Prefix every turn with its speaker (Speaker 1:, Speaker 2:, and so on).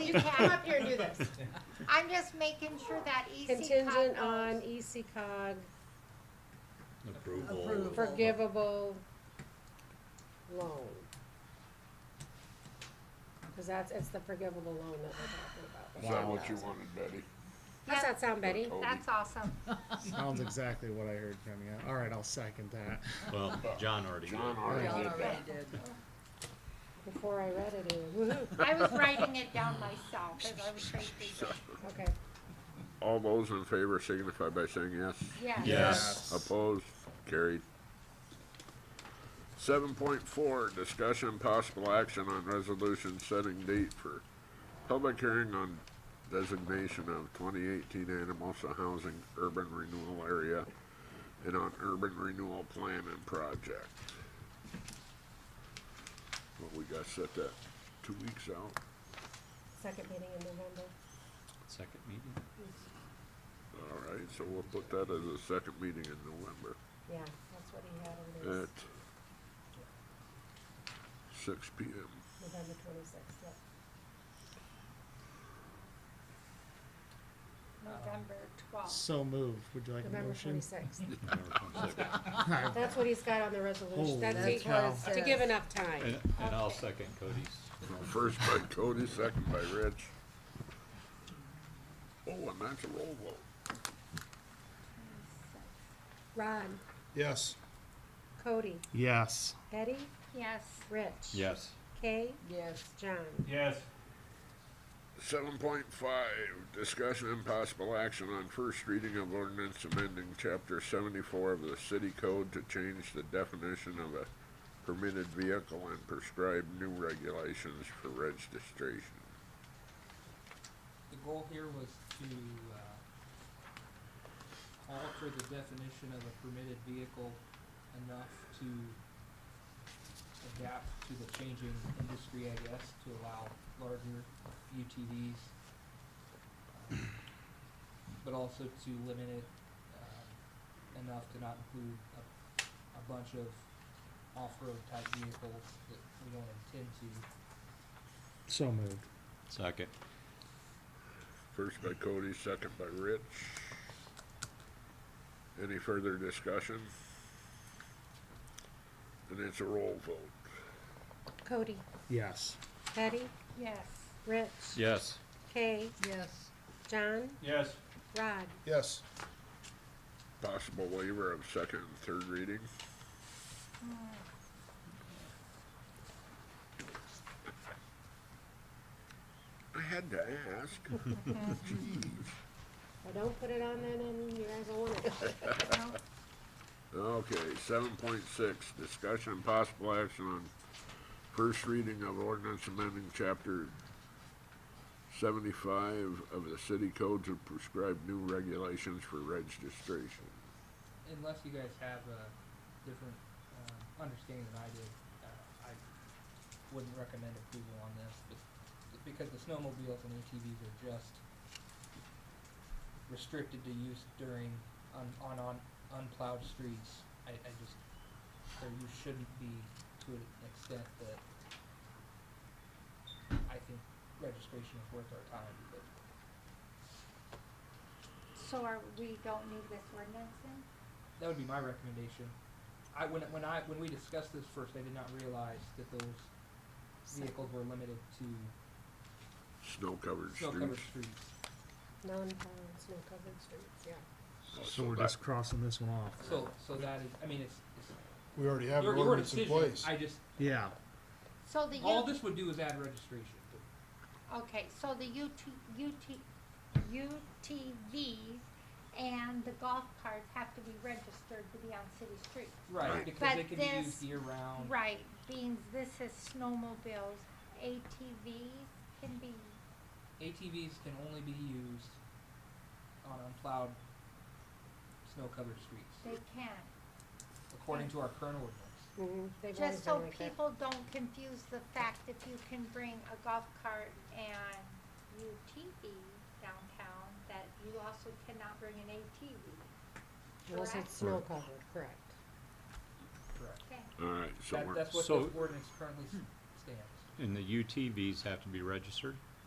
Speaker 1: you can't up here and do this. I'm just making sure that
Speaker 2: E
Speaker 1: EC
Speaker 2: Contingent
Speaker 1: cog
Speaker 2: on E
Speaker 1: knows.
Speaker 2: EC cog,
Speaker 3: Approval.
Speaker 4: Approval.
Speaker 2: forgivable loan. Cause that's, it's the forgivable loan that we're talking
Speaker 5: Is
Speaker 2: about.
Speaker 5: that what you wanted, Betty?
Speaker 2: How's that sound, Betty?
Speaker 5: Or Toby?
Speaker 1: That's awesome.
Speaker 6: Sounds exactly what I heard from you. All right, I'll second that.
Speaker 3: Well, John already did.
Speaker 5: John already
Speaker 4: John
Speaker 5: did that.
Speaker 4: already did.
Speaker 2: Before I read it, it- woohoo,
Speaker 1: I was writing it down myself as I was trying to,
Speaker 2: okay.
Speaker 5: All those in favor signify by saying yes.
Speaker 1: yeah.
Speaker 3: Yes.
Speaker 5: Opposed, carried. Seven point four, discussion and possible action on resolution setting date for public hearing on designation of twenty eighteen Anamosa Housing Urban Renewal Area and on urban renewal plan and project. Well, we gotta set that two weeks out.
Speaker 2: Second meeting in November.
Speaker 3: Second meeting?
Speaker 5: All right, so we'll put that as a second meeting in November.
Speaker 2: Yeah, that's what he had on
Speaker 5: at
Speaker 2: his,
Speaker 5: six P M.
Speaker 2: November twenty-sixth, yeah.
Speaker 1: November twelfth.
Speaker 6: So moved. Would you like a
Speaker 2: November
Speaker 6: motion?
Speaker 2: twenty-sixth.
Speaker 3: November 26th.
Speaker 2: That's what he's got on the resolution,
Speaker 6: Holy
Speaker 2: that's equals,
Speaker 4: cow.
Speaker 2: to give enough time.
Speaker 3: And, and I'll second Cody's.
Speaker 5: First by Cody, second by Rich. Oh, and that's a roll vote.
Speaker 2: Ron,
Speaker 6: Yes.
Speaker 2: Cody,
Speaker 6: Yes.
Speaker 2: Betty,
Speaker 1: Yes,
Speaker 2: Rich.
Speaker 3: Yes.
Speaker 2: Kay,
Speaker 4: Yes,
Speaker 2: John.
Speaker 7: Yes.
Speaker 5: Seven point five, discussion and possible action on first reading of ordinance amending chapter seventy-four of the city code to change the definition of a permitted vehicle and prescribe new regulations for registration.
Speaker 8: the goal here was to uh, alter the definition of a permitted vehicle enough to adapt to the changing industry, I guess, to allow larger UTVs, um, but also to limit it um, enough to not include a, a bunch of off-road type vehicles that we don't intend to.
Speaker 6: So moved.
Speaker 3: Second.
Speaker 5: First by Cody, second by Rich. Any further discussion? And it's a roll vote.
Speaker 2: Cody,
Speaker 6: Yes.
Speaker 2: Betty,
Speaker 1: yes,
Speaker 2: Rich.
Speaker 3: Yes.
Speaker 2: Kay,
Speaker 4: yes.
Speaker 2: John,
Speaker 7: Yes.
Speaker 2: Rod.
Speaker 6: Yes.
Speaker 5: Possible waiver of second and third reading. I had to ask.
Speaker 2: Well, don't put it on then, and you guys will want it.
Speaker 1: no,
Speaker 5: Okay, seven point six, discussion and possible action on first reading of ordinance amending chapter seventy-five of the city code to prescribe new regulations for registration.
Speaker 8: unless you guys have a different um, understanding than I did, uh, I wouldn't recommend approval on this, but because the snowmobiles and ATVs are just restricted to use during on on, on unplowed streets, I, I just or you shouldn't be to an extent that I think registration is worth our time, but
Speaker 1: so are, we don't need this ordinance then?
Speaker 8: That would be my recommendation. I when when I when we discussed this first, I did not realize that those vehicles were limited to
Speaker 5: Snow-covered
Speaker 8: snow-covered
Speaker 5: streets.
Speaker 8: streets.
Speaker 2: Non-plowed, snow-covered streets, yeah.
Speaker 6: So we're just crossing this one off.
Speaker 8: So so that is, I mean, it's, it's
Speaker 9: We already have
Speaker 8: your,
Speaker 9: an
Speaker 8: your
Speaker 9: ordinance in
Speaker 8: decision.
Speaker 9: place.
Speaker 8: I just
Speaker 6: Yeah.
Speaker 1: So the
Speaker 8: all
Speaker 1: U,
Speaker 8: this would do is add registration.
Speaker 1: okay, so the UT, UT, UTVs and the golf carts have to be registered to be on city streets.
Speaker 8: Right,
Speaker 5: Right.
Speaker 8: because
Speaker 1: But
Speaker 8: they can be
Speaker 1: this-
Speaker 8: used year round.
Speaker 1: Right, being this is snowmobiles, ATVs can be,
Speaker 8: ATVs can only be used on unplowed snow-covered
Speaker 1: they
Speaker 8: streets,
Speaker 1: can.
Speaker 8: according to our current ordinance.
Speaker 2: Mhm, they've always
Speaker 1: Just so
Speaker 2: been like that.
Speaker 1: people don't confuse the fact that you can bring a golf cart and UTV downtown, that you also cannot bring an ATV.
Speaker 2: Unless
Speaker 1: correct?
Speaker 2: it's snow-covered, correct.
Speaker 8: Correct.
Speaker 1: Okay.
Speaker 5: Alright, so
Speaker 8: That,
Speaker 5: we're,
Speaker 8: that's what
Speaker 3: so-
Speaker 8: the ordinance currently s- stands.
Speaker 3: And the UTVs have to be registered?